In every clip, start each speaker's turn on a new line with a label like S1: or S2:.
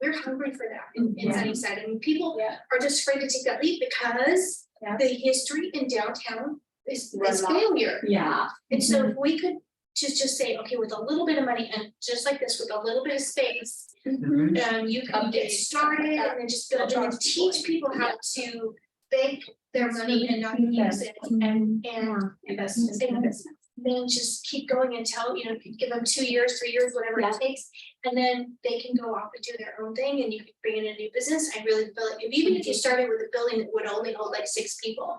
S1: they're hungry for that in in
S2: Mm, Yeah.
S1: Sunnyside, and people
S2: Yeah.
S1: are just afraid to take that leap because
S2: Yeah.
S1: the history in downtown is
S2: Run Mm-hmm.
S1: is
S2: up.
S1: failure.
S2: Yeah.
S1: And so if we could just just say, okay, with a little bit of money and just like this, with a little bit of space,
S3: Mhm.
S2: Mm-hmm.
S1: um, you can
S2: Update.
S1: get started and then just build and then
S2: Across the board.
S1: teach people how to bank their money and not use it.
S2: Mm-hmm.
S1: And and
S2: Investment.
S1: then just keep going until, you know, give them two years, three years, whatever
S2: Yeah.
S1: it takes. And then they can go off and do their own thing and you can bring in a new business. I really feel like, if even if you started with a building that would only hold like six people.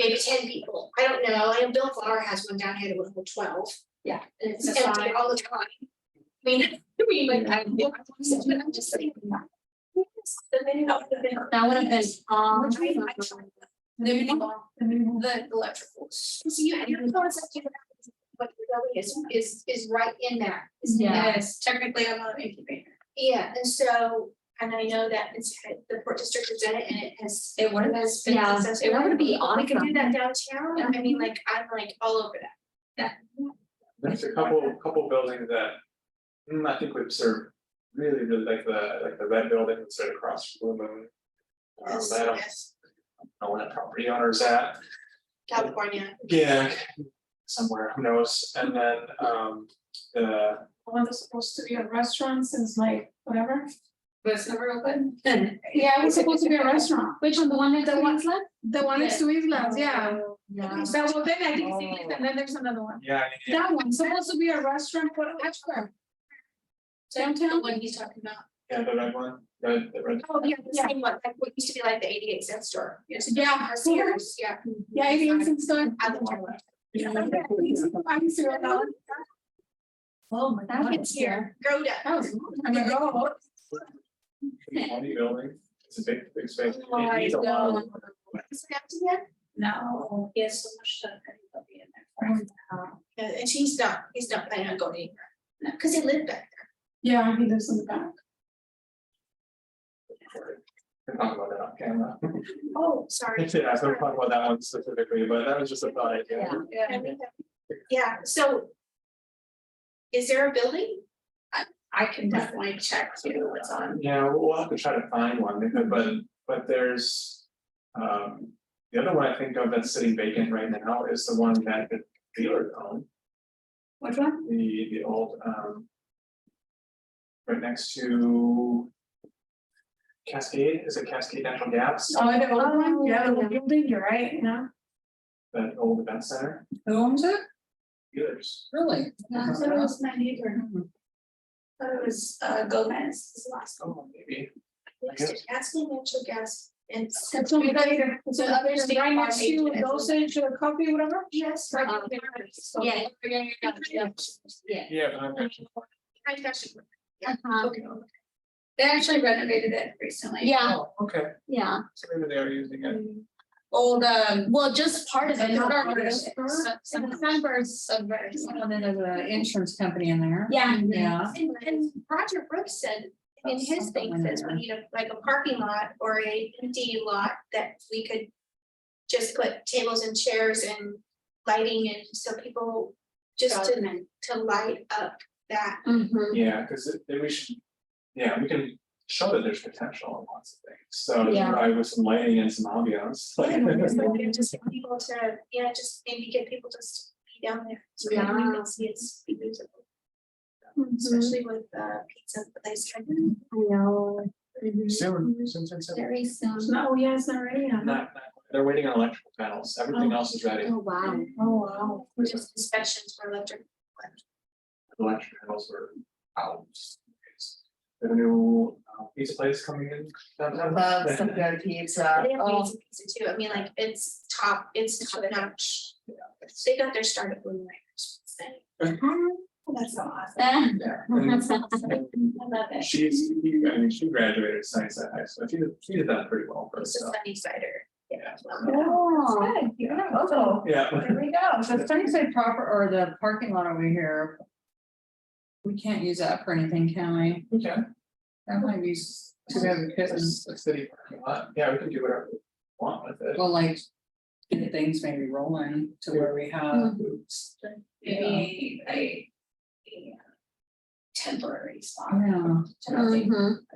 S1: Maybe ten people, I don't know, I know Bill Flower has one down here that would hold twelve.
S2: Yeah.
S1: And it's
S2: That's
S1: empty
S2: fine.
S1: all the time. I mean, I mean, like, I, but I'm just saying. yes, The minute of the minute.
S2: That would have been, um.
S1: Which we-
S2: The electricals.
S1: So you, your concept, you have, what really is, is, is right in there. is in
S2: Yeah.
S1: that-
S2: technically I'm not an incubator.
S1: Yeah, and so, and I know that it's, the Port District has done it and it has.
S2: It would've-
S1: has been
S2: yeah, it
S1: successful.
S2: would've been
S1: We could do
S2: awesome.
S1: that downtown, I mean, like, I'm like all over that.
S3: There's a couple, couple buildings that, mm, I think would serve really, really like the, like the red building that's right across from Blue Moon. Um, I don't
S1: Yes,
S3: know where the property owner's at,
S1: California,
S3: yeah, somewhere, who knows, and then, um, the,
S4: The one that's supposed to be a restaurant since like whatever.
S2: Was never open.
S4: Yeah, it was supposed to be a restaurant.
S2: Which one, the one that the one's left? Oh,
S4: The one next to Islas, yeah.
S2: Yeah.
S4: So well, then I think it's Islas and then there's another one.
S3: yeah, yeah,
S4: That one's supposed to be a restaurant for Ashburn. Downtown?
S2: one he's talking about.
S3: yeah, the red one, red, the red.
S1: oh, yeah, the
S4: Yeah.
S1: same one, like, what used to be like the eighty-eight cent store. Yes.
S4: Yeah.
S1: Uh, Sears, yeah.
S4: Yeah, it is in store.
S1: I don't know.
S4: Yeah, I'm sure that one-
S2: Oh, my
S4: God.
S2: That gets here.
S1: Groda.
S4: that was- I mean, oh,
S3: Funny building, it's a big, big space. It
S4: Oh, I
S3: needs a lot of-
S1: Is it empty yet?
S4: No.
S2: He has so much stuff that he'll be in there. for.
S1: Yeah, and he's not, he's not planning on going anywhere. Cause he lived back
S4: Yeah, he lives in the back.
S3: Can talk about that on camera.
S1: there. Oh, sorry.
S3: Yeah, I don't talk about that one specifically, but that was just a thought idea.
S2: Yeah.
S1: I think that- Yeah, so. Is there a building?
S2: I can definitely check too what's on.
S3: Yeah, we'll we'll have to try to find one, because- but but there's. Um, the other one I think of that's sitting vacant right now is the one that the dealer owned,
S2: Which one?
S3: the the old um. Right next to. Cascade, is it Cascade Natural Gas,
S4: Oh, the old one,
S2: Oh,
S4: yeah, the
S2: yeah.
S4: old building, you're right, you know.
S3: that old event center,
S2: Who owns it?
S3: dealers,
S2: Really?
S4: Uh,
S3: Yeah, so
S2: So
S3: it
S2: it was my neighbor. Thought it was uh Gomez, his last.
S3: oh, maybe.
S1: Next to Gatsby Natural Gas and.
S4: That's what we got here. So
S1: Yeah.
S4: others right next to those, to the coffee, whatever.
S1: Yes. right
S2: Um,
S1: there. So-
S2: Yeah. yeah, Yeah.
S3: Yeah, but I'm
S1: I got you.
S2: Uh-huh.
S1: Okay.
S2: They actually renovated it recently. Yeah,
S3: Oh, okay,
S2: yeah.
S3: so maybe they are using it,
S2: Old um. Well, just part of it.
S4: Not
S2: not
S4: all of it.
S2: Sunburst, Sun- Sun-
S4: Sunburst.
S2: Sunburst.
S5: then there's an insurance company in there.
S2: Yeah.
S5: Yeah.
S1: And, and Roger Brooks said, in his thing says, we need a, like a parking lot or a empty lot that we could. Just put tables and chairs and lighting and so people just to, to light up that.
S2: Mhm.
S3: yeah, cause it- then we should. Yeah, we can show that there's potential in lots of things, so
S2: Yeah.
S3: probably with some lighting and some ambiance, like.
S1: Just like, you know, just get people to, yeah, just maybe get people just be down there. So we
S2: Yeah. Mm-hmm.
S1: can see it's beautiful, especially with uh pizza place.
S2: know.
S3: Soon, soon, soon, soon.
S2: Very soon.
S4: No, yeah, it's not ready
S3: Not, not, they're waiting on electrical panels, everything else is ready,
S2: Oh, wow.
S4: Oh, wow.
S1: Just inspections for electric.
S3: electrical panels were out. The new uh, pizza place coming in downtown.
S5: Love some good pizza.
S1: They have
S3: um,
S5: Oh,
S1: amazing pizza too. I mean, like, it's top, it's top notch. They got their start at Blue Light.
S3: Mm-hmm.
S4: That's awesome.
S2: Ah,
S3: Yeah, and-
S2: That's awesome. I love it.
S3: She's, he- I mean, she graduated science at high school, she did, she did that pretty well for
S1: It's a
S3: herself,
S1: sunny cider.
S3: yeah.
S2: Oh.
S5: good. Yeah, oh,
S3: Yeah,
S5: there we go. So Sunnyside proper or the parking lot over here. We can't use that for anything, can we?
S3: we can,
S5: That might be s- too bad because,
S3: it's a city parking lot, yeah, we can do whatever we want with it.
S5: well, like. get Things maybe rolling to where we have.
S2: Maybe a. a Temporary spot.
S3: Mm-hmm.
S5: Yeah.
S2: Mhm.